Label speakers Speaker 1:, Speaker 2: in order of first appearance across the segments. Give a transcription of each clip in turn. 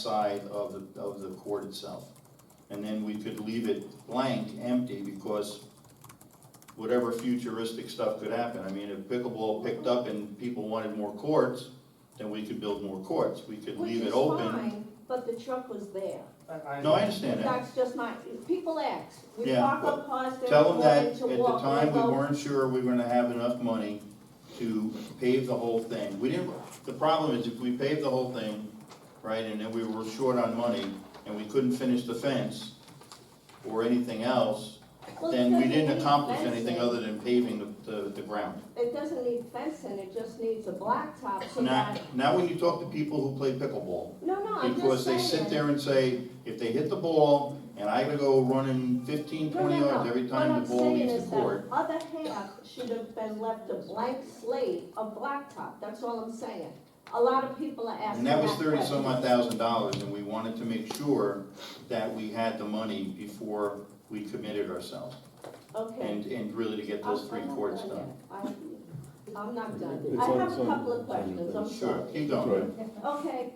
Speaker 1: outside of the, of the court itself. And then we could leave it blank, empty, because whatever futuristic stuff could happen. I mean, if pickleball picked up and people wanted more courts, then we could build more courts. We could
Speaker 2: Which
Speaker 1: leave
Speaker 2: is
Speaker 1: it open.
Speaker 2: fine, but the truck was there.
Speaker 1: No, I understand that.
Speaker 2: That's just my, people ask, we
Speaker 1: Yeah,
Speaker 2: park
Speaker 1: well,
Speaker 2: on cars that
Speaker 1: Tell
Speaker 2: are
Speaker 1: them that
Speaker 2: willing
Speaker 1: at
Speaker 2: to
Speaker 1: the
Speaker 2: walk.
Speaker 1: time, we
Speaker 2: although-
Speaker 1: weren't sure we were gonna have enough money to pave the whole thing. We didn't, the problem is if we paved the whole thing, right, and then we were short on money and we couldn't finish the fence or anything else,
Speaker 2: Well, it
Speaker 1: then we
Speaker 2: doesn't
Speaker 1: didn't
Speaker 2: need
Speaker 1: accomplish anything
Speaker 2: fencing.
Speaker 1: other than paving the, the, the ground.
Speaker 2: It doesn't need fencing, it just needs a blacktop so
Speaker 1: Now,
Speaker 2: that,
Speaker 1: now when you talk to people who play pickleball,
Speaker 2: no, no, Oh, I'm
Speaker 1: because
Speaker 2: just
Speaker 1: they sit
Speaker 2: saying.
Speaker 1: there and say, if they hit the ball and I gotta go running fifteen,
Speaker 2: No, no,
Speaker 1: twenty
Speaker 2: no.
Speaker 1: yards every time the ball leaves the court.
Speaker 2: What I'm saying is that other half should have been left a blank slate of blacktop, that's all I'm saying. A lot of people are asking
Speaker 1: And
Speaker 2: that
Speaker 1: that was thirty some odd
Speaker 2: question.
Speaker 1: thousand dollars, and we wanted to make sure that we had the money before we committed ourselves,
Speaker 2: Okay.
Speaker 1: and, and really to get
Speaker 2: I'm-
Speaker 1: those three
Speaker 2: I'm not
Speaker 1: courts
Speaker 2: done
Speaker 1: done.
Speaker 2: yet. I- I'm not done.
Speaker 3: It's
Speaker 2: I
Speaker 3: on-
Speaker 2: have
Speaker 3: it's
Speaker 2: a
Speaker 3: on-
Speaker 2: couple of
Speaker 3: it's on your
Speaker 2: questions,
Speaker 3: thing.
Speaker 2: I'm
Speaker 1: Sure,
Speaker 2: sorry.
Speaker 1: keep
Speaker 3: That's
Speaker 1: going.
Speaker 3: right.
Speaker 2: Okay,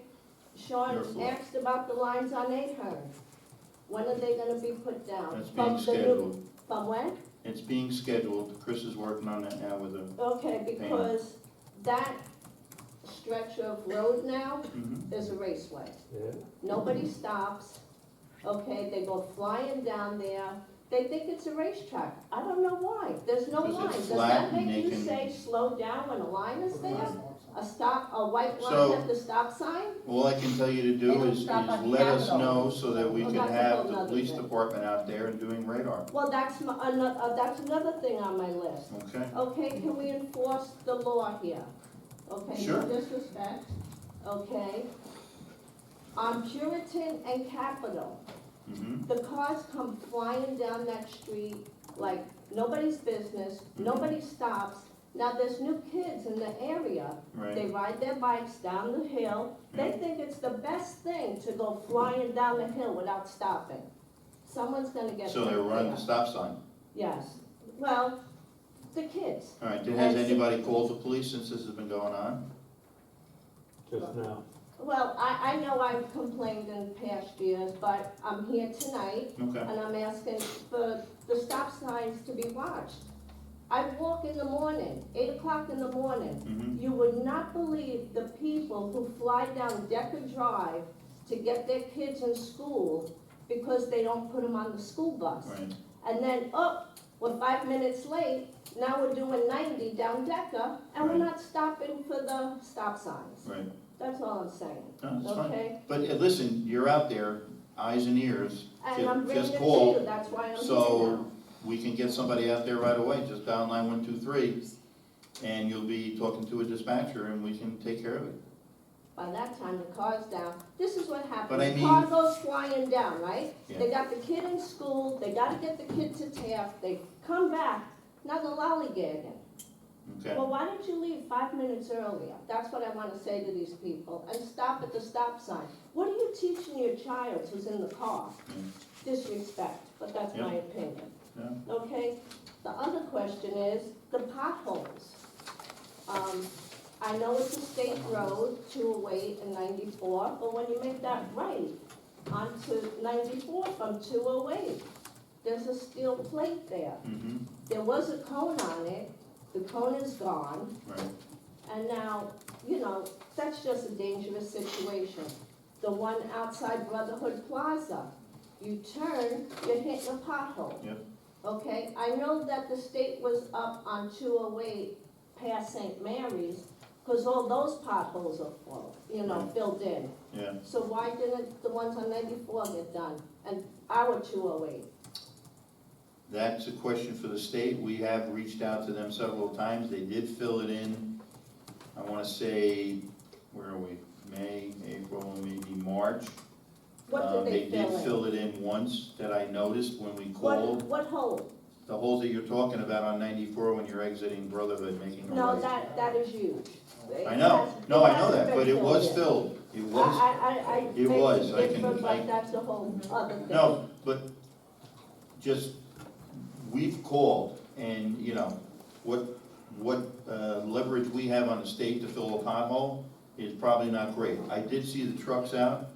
Speaker 2: Sean
Speaker 1: Your floor.
Speaker 2: asked about the lines on Ahern. When are they gonna be put down?
Speaker 1: That's
Speaker 2: From
Speaker 1: being
Speaker 2: the new-
Speaker 1: scheduled,
Speaker 2: From when?
Speaker 1: it's being scheduled, Chris is working on that now with a,
Speaker 2: Okay, because that stretch of road now
Speaker 1: Mhm.
Speaker 2: is a raceway.
Speaker 3: Yeah.
Speaker 1: Mm-hmm.
Speaker 2: Nobody stops, okay, they go flying down there, they think it's a racetrack, I don't know why, there's no
Speaker 1: Because
Speaker 2: line,
Speaker 1: it's
Speaker 2: does
Speaker 1: flat
Speaker 2: that
Speaker 1: and
Speaker 2: make
Speaker 1: they
Speaker 2: you
Speaker 1: can-
Speaker 2: say slow down when a line is there? A stop, a white
Speaker 1: So-
Speaker 2: line at the stop sign?
Speaker 1: all I can tell you to
Speaker 4: They
Speaker 1: do
Speaker 4: don't
Speaker 1: is, is
Speaker 4: stop on
Speaker 1: let us
Speaker 4: Capitol.
Speaker 1: know so that we
Speaker 2: Well,
Speaker 1: can
Speaker 2: that's a
Speaker 1: have
Speaker 2: whole
Speaker 1: the
Speaker 2: nother
Speaker 1: police
Speaker 2: thing.
Speaker 1: department out there and doing radar,
Speaker 2: Well, that's my, ano- uh, that's another thing on my list,
Speaker 1: okay?
Speaker 2: okay, can we enforce the law here? Okay,
Speaker 1: Sure.
Speaker 2: no disrespect, okay? On Puritan and Capitol,
Speaker 1: hmm
Speaker 2: The cars come flying down that street like nobody's business,
Speaker 1: Mm-hmm.
Speaker 2: nobody stops. Now, there's new kids in the area, they
Speaker 1: right,
Speaker 2: ride their bikes down the hill. They think it's the best thing to go flying down the hill without stopping. Someone's gonna get hurt
Speaker 1: so they're running
Speaker 2: there.
Speaker 1: the stop sign,
Speaker 2: Yes, well, the kids.
Speaker 1: all right, then has
Speaker 2: Yes.
Speaker 1: anybody called the police since this has been going on?
Speaker 3: Just now.
Speaker 2: Well, I, I know I've complained in past years, but I'm here tonight
Speaker 1: Okay,
Speaker 2: And I'm asking for the stop signs to be watched. I walk in the morning, eight o'clock in the morning.
Speaker 1: hmm
Speaker 2: You would not believe the people who fly down Decker Drive to get their kids in school because they don't put them on the school bus.
Speaker 1: right.
Speaker 2: And then, oh, we're five minutes late, now we're doing ninety down Decker, and we're
Speaker 1: Right.
Speaker 2: not stopping for the stop signs.
Speaker 1: Right,
Speaker 2: That's all I'm saying,
Speaker 1: no, it's fine.
Speaker 2: okay?
Speaker 1: But uh, listen, you're out there, eyes and ears,
Speaker 2: And
Speaker 1: Ju-
Speaker 2: I'm bringing
Speaker 1: just
Speaker 2: it to
Speaker 1: call.
Speaker 2: you, that's why I'm here
Speaker 1: So-
Speaker 2: now.
Speaker 1: we can get somebody out there right away, just dial nine one two three, and you'll be talking to a dispatcher and we can take care of it.
Speaker 2: By that time, the car's down. This is what
Speaker 1: But I
Speaker 2: happened. The
Speaker 1: mean-
Speaker 2: car goes flying down, right?
Speaker 1: Yeah.
Speaker 2: They got the kid in school, they gotta get the kid to TAF, they come back, now they're lollygagging.
Speaker 1: Okay,
Speaker 2: Well, why didn't you leave five minutes earlier? That's what I wanna say to these people, and stop at the stop sign. What are you teaching your child who's in the car? Disrespect, but that's my opinion.
Speaker 1: Yeah.
Speaker 2: Okay, the other question is the potholes. Um, I know it's a state road, two oh eight and ninety-four, but when you make that right onto ninety-four from two oh eight, there's a steel plate there.
Speaker 1: mm-hmm,
Speaker 2: There was a cone on it, the cone is gone,
Speaker 1: right.
Speaker 2: and now, you know, that's just a dangerous situation. The one outside Brotherhood Plaza, you turn, you're hitting a pothole.
Speaker 1: Yep.
Speaker 2: Okay, I know that the state was up on two oh eight past St. Mary's, cause all those potholes are full, you know,
Speaker 1: Right.
Speaker 2: filled in.
Speaker 1: Yeah,
Speaker 2: So why didn't the ones on ninety-four get done, and our two oh eight?
Speaker 1: that's a question for the state. We have reached out to them several times. They did fill it in. I wanna say, where are we? May, April, maybe March. Uh,
Speaker 2: What did they
Speaker 1: They did
Speaker 2: fill in?
Speaker 1: fill it in once that I noticed when we called.
Speaker 2: What, what hole?
Speaker 1: The holes that you're talking about on ninety-four when you're exiting Brotherhood, making a
Speaker 2: No,
Speaker 1: right.
Speaker 2: that, that is huge.
Speaker 1: I know, no, I know that, but it was
Speaker 2: still.
Speaker 1: filled, it
Speaker 2: I,
Speaker 1: was,
Speaker 2: I, I, I.
Speaker 1: It was, I
Speaker 2: make
Speaker 1: can-
Speaker 2: different,
Speaker 1: I-
Speaker 2: But that's a whole other thing.
Speaker 1: no, but just, we've called and, you know, what, what, uh, leverage we have on the state to fill a pothole is probably not great. I did see the trucks out,